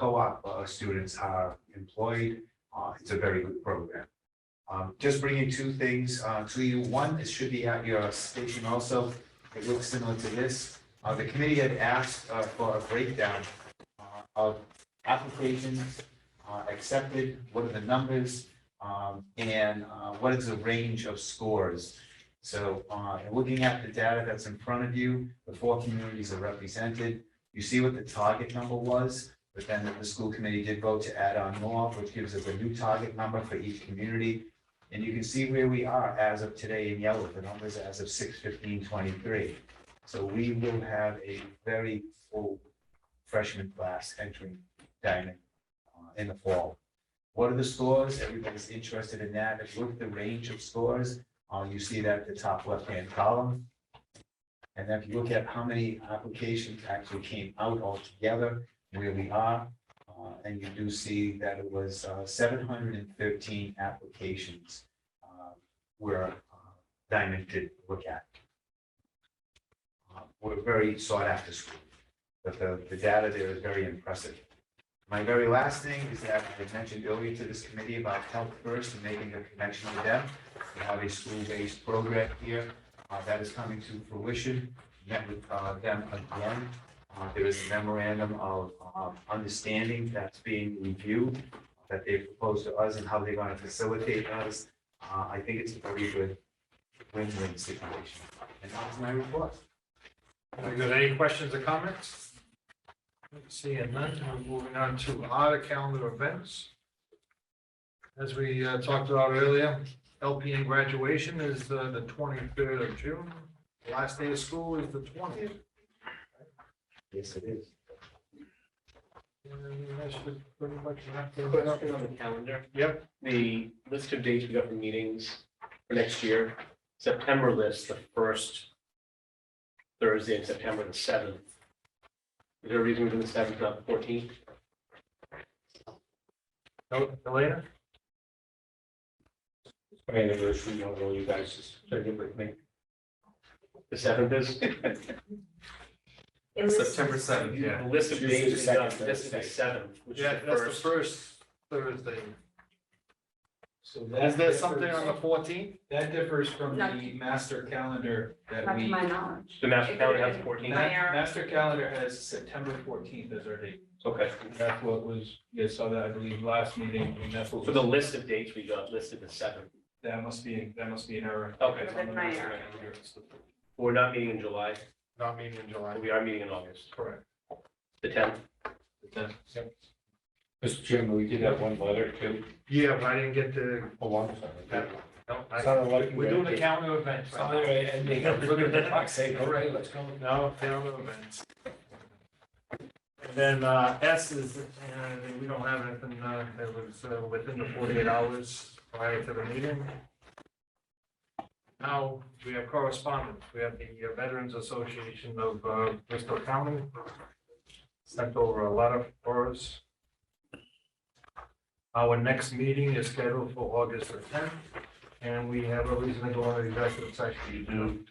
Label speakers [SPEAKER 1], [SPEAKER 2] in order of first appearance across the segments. [SPEAKER 1] co-op uh, students are employed. Uh, It's a very good program. Um, Just bringing two things uh, to you. One, it should be at your station also. It looks similar to this. Uh, The committee had asked uh, for a breakdown uh, of applications uh, accepted, what are the numbers, um, and uh, what is the range of scores? So uh, looking at the data that's in front of you, the four communities are represented. You see what the target number was, but then the school committee did vote to add on more, which gives us a new target number for each community. And you can see where we are as of today in yellow, the numbers as of six fifteen twenty-three. So we will have a very full freshman class entering Diamond uh, in the fall. What are the scores? Everybody's interested in that. If you look at the range of scores, uh, you see that at the top left-hand column. And then if you look at how many applications actually came out altogether, where we are, uh, and you do see that it was, uh, seven hundred and thirteen applications, uh, where uh, Diamond did look at. Uh, We're very sought after school, but the, the data there is very impressive. My very last thing is that I mentioned earlier to this committee about Health First and making the connection with them. We have a school-based program here uh, that is coming to fruition. Met with uh, them again. Uh, There is a memorandum of of understanding that's being reviewed that they proposed to us and how they're going to facilitate us. Uh, I think it's a very good win-win situation. And that was my report.
[SPEAKER 2] Very good. Any questions or comments? Seeing none, we're moving on to our calendar events. As we uh, talked about earlier, LPN graduation is uh, the twenty-third of June. Last day of school is the twentieth.
[SPEAKER 1] Yes, it is.
[SPEAKER 2] And that's pretty much wrap things up.
[SPEAKER 3] Question on the calendar,
[SPEAKER 2] Yep,
[SPEAKER 3] the list of dates we got for meetings for next year, September list, the first Thursday in September, the seventh. Is there a reason we're doing the seventh, not the fourteenth?
[SPEAKER 2] No, Elena?
[SPEAKER 4] My anniversary, you know, you guys just took it with me.
[SPEAKER 3] The seventh is,
[SPEAKER 5] It was-
[SPEAKER 4] seventh,
[SPEAKER 3] the list of
[SPEAKER 4] Tuesday,
[SPEAKER 3] dates we got,
[SPEAKER 4] second
[SPEAKER 3] this is the
[SPEAKER 4] Thursday.
[SPEAKER 3] seventh, which is
[SPEAKER 2] Yeah,
[SPEAKER 3] the
[SPEAKER 2] that's the
[SPEAKER 3] first.
[SPEAKER 2] first Thursday.
[SPEAKER 6] So
[SPEAKER 2] Is
[SPEAKER 6] that
[SPEAKER 2] there something
[SPEAKER 6] differs-
[SPEAKER 2] on the fourteenth?
[SPEAKER 6] That differs from
[SPEAKER 5] Not-
[SPEAKER 6] the master calendar that
[SPEAKER 5] Not to
[SPEAKER 6] we.
[SPEAKER 5] my knowledge.
[SPEAKER 3] The master calendar has fourteen,
[SPEAKER 5] Nine.
[SPEAKER 6] Ma- Master calendar has September fourteenth as our date.
[SPEAKER 3] okay.
[SPEAKER 6] That's what was, you saw that, I believe, last meeting, and that's what
[SPEAKER 3] For the
[SPEAKER 6] was,
[SPEAKER 3] list of dates we got listed the seventh,
[SPEAKER 6] that must be, that must be an error.
[SPEAKER 3] Okay.
[SPEAKER 6] It's on the
[SPEAKER 5] That's my
[SPEAKER 6] master
[SPEAKER 5] error.
[SPEAKER 6] calendar. It's the-
[SPEAKER 3] we're not meeting in July,
[SPEAKER 2] Not meeting in July.
[SPEAKER 3] but we are meeting in August,
[SPEAKER 6] Correct.
[SPEAKER 3] the tenth.
[SPEAKER 6] The tenth.
[SPEAKER 4] Mr. Chairman, we did have one letter too.
[SPEAKER 2] Yeah, but I didn't get to,
[SPEAKER 4] Oh, I'm sorry.
[SPEAKER 2] no, I-
[SPEAKER 4] Sounded like you
[SPEAKER 2] we're doing the
[SPEAKER 4] read it.
[SPEAKER 2] calendar events. right now.
[SPEAKER 4] Sorry, I think I'm looking at the clock saying, all right, let's go.
[SPEAKER 2] No, calendar events. And then uh, S is, uh, we don't have anything uh, that was uh, within the 48 hours prior to the meeting. Now, we have correspondence. We have the Veterans Association of uh, Bristol County sent over a letter for us. Our next meeting is scheduled for August the 10th, and we have a reason to go on the executive
[SPEAKER 4] You
[SPEAKER 2] session.
[SPEAKER 4] do,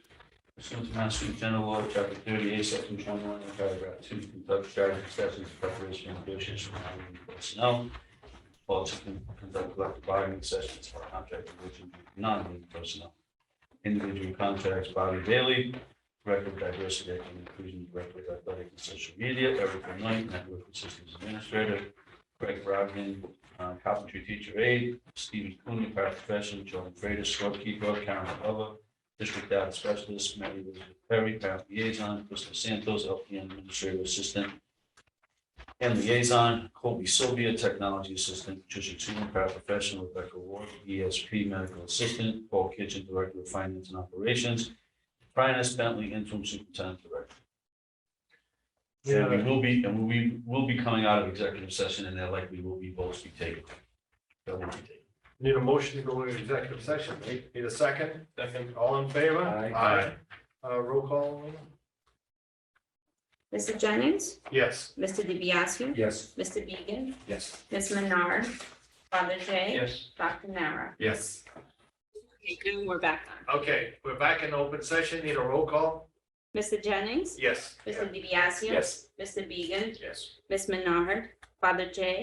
[SPEAKER 4] pursuant to Master General Law, Chapter thirty-eight, Section twenty-one, and paragraph two, conduct strategy sessions, preparation, negotiation, and hiring of personnel. Also conduct collective bargaining sessions for contract negotiation, non-union personnel. Individual contracts, Bobby Bailey, Director of Diversity, Equity, and Inclusion, Director of Athletic and Social Media, Erica Knight, Network and Systems Administrator, Greg Rodman, uh, Carpentry Teacher Aide, Stephen Cooney, Paraprofessional, John Freitas, Scorekeeper, Karen Glover, District Data Specialist, Mary Elizabeth Perry, Parent Liaison, Crystal Santos, LPN Administrative Assistant, and Liaison, Colby Sylvia, Technology Assistant, Patricia Tooman, Paraprofessional, Rebecca Ward, ESP Medical Assistant, Paul Kitchen, Director of Finance and Operations, Brian S. Bentley, Interim Superintendent Director. And we will be, and we will be coming out of executive session, and there likely will be votes be taken. There will be taken.
[SPEAKER 2] Need a motion to go into executive session. Need- Need a second?
[SPEAKER 3] Second.
[SPEAKER 2] All in favor?
[SPEAKER 4] Aye.
[SPEAKER 2] Uh, roll call? Lena?
[SPEAKER 5] Mr. Jennings,
[SPEAKER 2] Yes.
[SPEAKER 5] Mr. DiBiaseu,
[SPEAKER 1] Yes.
[SPEAKER 5] Mr. Beegan,
[SPEAKER 1] Yes.
[SPEAKER 5] Ms. Menard, Father J,
[SPEAKER 3] Yes.
[SPEAKER 5] Dr. Nara.
[SPEAKER 2] Yes.
[SPEAKER 5] Okay, June, we're back on.
[SPEAKER 2] Okay, we're back in open session. Need a roll call?
[SPEAKER 5] Mr. Jennings,
[SPEAKER 2] Yes.
[SPEAKER 5] Mr. DiBiaseu.
[SPEAKER 3] Yes.
[SPEAKER 5] Mr. Beegan,
[SPEAKER 3] Yes.
[SPEAKER 5] Ms. Menard, Father J.